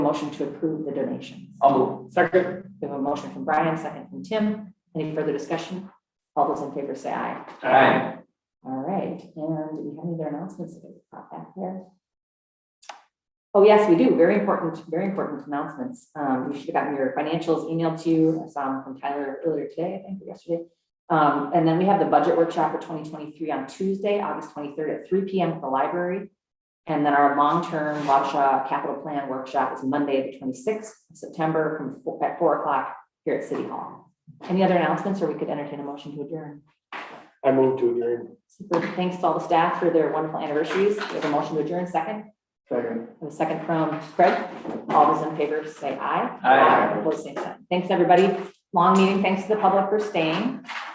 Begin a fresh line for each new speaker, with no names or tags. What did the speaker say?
motion to approve the donations?
I'll move. Second.
We have a motion from Brian, second from Tim. Any further discussion? All those in favor say aye.
Aye.
All right, and do we have any other announcements that we pop back there? Oh, yes, we do. Very important, very important announcements. Um, you should have gotten your financials emailed to you. I saw them from Tyler earlier today, I think, or yesterday. Um, and then we have the budget workshop for twenty twenty-three on Tuesday, August twenty-third at three P M at the library. And then our long-term Wausau capital plan workshop is Monday, the twenty-sixth of September from four, at four o'clock here at City Hall. Any other announcements, or we could entertain a motion to adjourn?
I move to adjourn.
Super, thanks to all the staff for their wonderful anniversaries. We have a motion to adjourn second,
Second.
and a second from Craig. All those in favor say aye.
Aye.
Opposed, same sign. Thanks, everybody. Long meeting. Thanks to the public for staying.